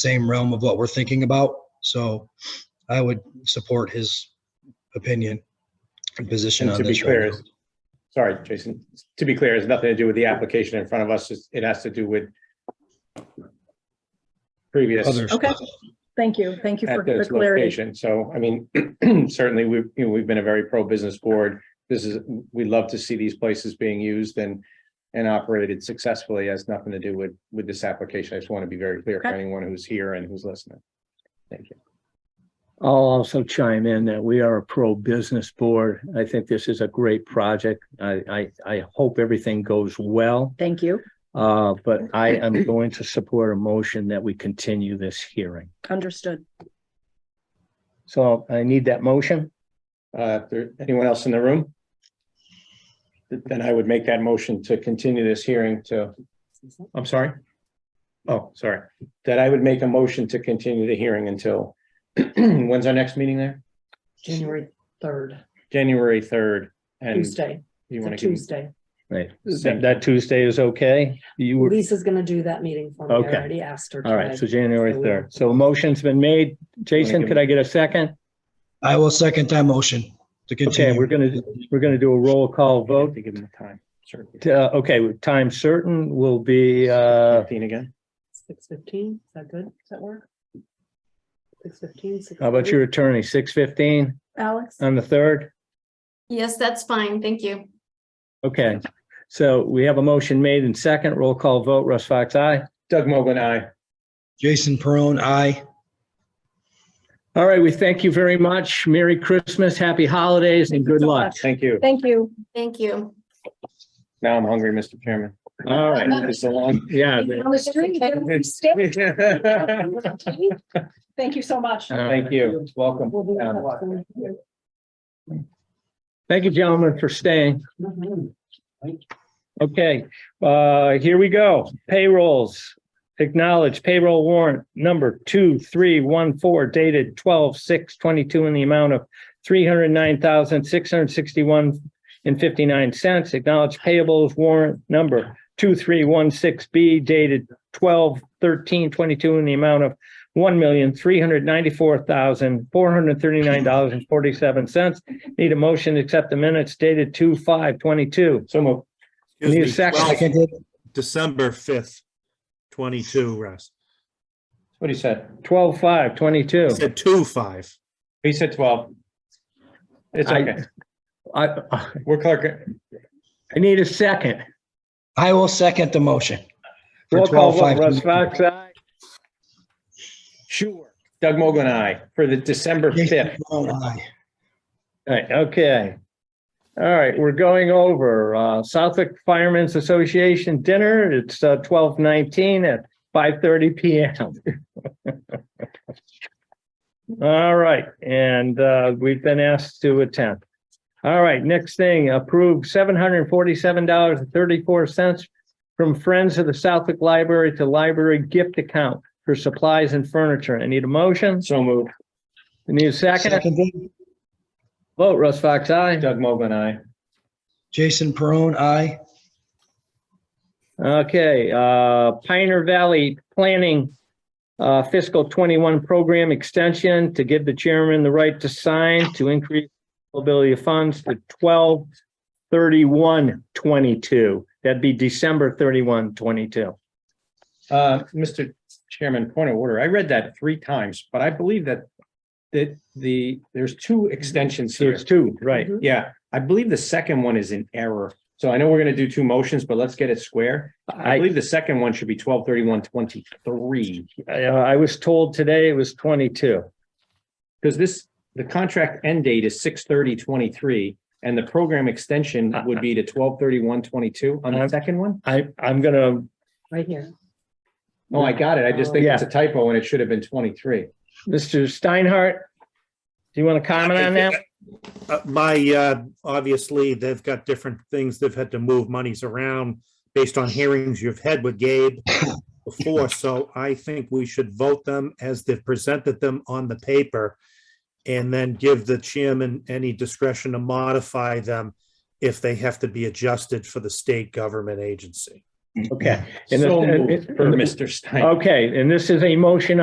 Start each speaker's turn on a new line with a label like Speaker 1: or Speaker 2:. Speaker 1: same realm of what we're thinking about. So I would support his opinion and position
Speaker 2: And
Speaker 1: on
Speaker 2: to be
Speaker 1: this right
Speaker 2: clear,
Speaker 1: now.
Speaker 2: it's- sorry, Jason, to be clear, it has nothing to do with the application in front of us. It's- It has to do with previous
Speaker 1: Others.
Speaker 3: Okay, thank you. Thank you for
Speaker 2: at
Speaker 3: the
Speaker 2: this
Speaker 3: clarity.
Speaker 2: location. So, I mean, certainly we've, you know, we've been a very pro-business board. This is, we love to see these places being used and, and operated successfully. It Has nothing to do with, with this application. I just want to be very clear for
Speaker 3: Okay.
Speaker 2: anyone who's here and who's listening. Thank you.
Speaker 4: I'll also chime in that we are a pro-business board. I think this is a great project. I, I, I hope everything goes well.
Speaker 3: Thank you.
Speaker 4: Uh, but I am going to support a motion that we continue this hearing.
Speaker 3: Understood.
Speaker 4: So I need that motion.
Speaker 2: Uh, if there, anyone else in the room? Th- Then I would make that motion to continue this hearing to, I'm sorry. Oh, sorry, that I would make a motion to continue the hearing until, when's our next meeting there?
Speaker 5: January third,
Speaker 2: January third and
Speaker 5: Tuesday,
Speaker 2: you
Speaker 5: it's a
Speaker 2: want to give,
Speaker 5: Tuesday.
Speaker 4: Right.
Speaker 2: Same.
Speaker 4: That that Tuesday is okay? You were,
Speaker 5: Lisa's gonna do that meeting for me. I
Speaker 4: Okay.
Speaker 5: already asked her.
Speaker 4: all right,
Speaker 5: today.
Speaker 4: so January
Speaker 5: So we-
Speaker 4: third. So a motion's been made. Jason, could I get a second?
Speaker 1: I will second that motion to continue.
Speaker 4: Okay, we're gonna, we're gonna do a roll
Speaker 2: I
Speaker 4: call
Speaker 2: have
Speaker 4: vote.
Speaker 2: to give them the time, sure.
Speaker 4: Uh, okay, time certain will be, uh,
Speaker 2: Fifteen again,
Speaker 5: Six fifteen, is that good? Does that work? Six fifteen.
Speaker 4: how about your attorney, six fifteen
Speaker 3: Alex?
Speaker 4: on the third?
Speaker 6: Yes, that's fine. Thank you.
Speaker 4: Okay, so we have a motion made and second, roll call vote, Russ Fox, aye.
Speaker 2: Doug Mogul, aye.
Speaker 1: Jason Perone, aye.
Speaker 4: All right, we thank you very much. Merry Christmas, happy holidays, and good luck.
Speaker 2: Thank you.
Speaker 3: Thank you.
Speaker 6: Thank you.
Speaker 2: Now I'm hungry, Mr. Chairman.
Speaker 4: All right,
Speaker 2: It's a long.
Speaker 4: yeah.
Speaker 3: On the street, Thank you so much.
Speaker 2: Thank you, welcome. Um,
Speaker 4: Thank you, gentlemen, for staying.
Speaker 5: Mm-hmm.
Speaker 4: Okay, uh, here we go. Payrolls. Acknowledge payroll warrant number two, three, one, four dated twelve, six, twenty-two in the amount of three hundred nine thousand, six hundred sixty-one and fifty-nine cents. Acknowledge payables warrant number two, three, one, six, B dated twelve, thirteen, twenty-two in the amount of one million, three hundred ninety-four thousand, four hundred thirty-nine dollars and forty-seven cents. Need a motion to accept the minutes dated two, five, twenty-two.
Speaker 2: So moved.
Speaker 7: Excuse
Speaker 4: Need a
Speaker 7: me,
Speaker 4: second.
Speaker 7: 12th,
Speaker 1: Seconded.
Speaker 7: December fifth, twenty-two, Russ.
Speaker 2: What he said.
Speaker 4: Twelve, five, twenty-two.
Speaker 7: I Said two, five.
Speaker 2: He said twelve. It's
Speaker 4: I-
Speaker 2: okay.
Speaker 4: I, I
Speaker 2: We're clerk.
Speaker 4: need a second.
Speaker 1: I will second the motion. for
Speaker 4: Roll call vote,
Speaker 1: 12-5.
Speaker 4: Russ Fox, aye.
Speaker 2: Sure. Doug Mogul, aye, for the December
Speaker 1: Jason
Speaker 2: fifth.
Speaker 1: Perone, aye.
Speaker 4: All right, okay. All right, we're going over, uh, Southwick Firemen's Association dinner. It's, uh, twelve nineteen at five thirty PM. All right, and, uh, we've been asked to attend. All right, next thing, approve seven hundred and forty-seven dollars and thirty-four cents from Friends of the Southwick Library to Library Gift Account for supplies and furniture. I need a motion.
Speaker 2: So moved.
Speaker 4: I need a second.
Speaker 1: Seconded.
Speaker 4: Vote, Russ Fox, aye.
Speaker 2: Doug Mogul, aye.
Speaker 1: Jason Perone, aye.
Speaker 4: Okay, uh, Pioneer Valley Planning uh, fiscal twenty-one program extension to give the chairman the right to sign to increase availability of funds to twelve thirty-one twenty-two. That'd be December thirty-one twenty-two.
Speaker 2: Uh, Mr. Chairman, point of order. I read that three times, but I believe that that the, there's two extensions
Speaker 4: So
Speaker 2: here.
Speaker 4: it's two, right?
Speaker 5: Mhm.
Speaker 2: Yeah, I believe the second one is in error. So I know we're gonna do two motions, but let's get it square. I
Speaker 4: I,
Speaker 2: believe the second one should be twelve thirty-one twenty-three.
Speaker 4: I uh, I was told today it was twenty-two.
Speaker 2: Because this, the contract end date is six thirty twenty-three, and the program extension would be to twelve thirty-one twenty-two on the
Speaker 4: Uh-huh.
Speaker 2: second one?
Speaker 4: Uh, I, I'm gonna,
Speaker 5: Right here.
Speaker 2: Oh, I got it. I just think it's a typo and it should have been twenty-three.
Speaker 4: Mr. Steinhardt, do you want to comment on that?
Speaker 7: Uh, My, uh, obviously, they've got different things. They've had to move monies around based on hearings you've had with Gabe before, so I think we should vote them as they've presented them on the paper and then give the chairman any discretion to modify them if they have to be adjusted for the state government agency.
Speaker 4: Okay. And the-
Speaker 2: So
Speaker 4: and-
Speaker 2: moved for Mr. Stein.
Speaker 4: Okay, and this is a motion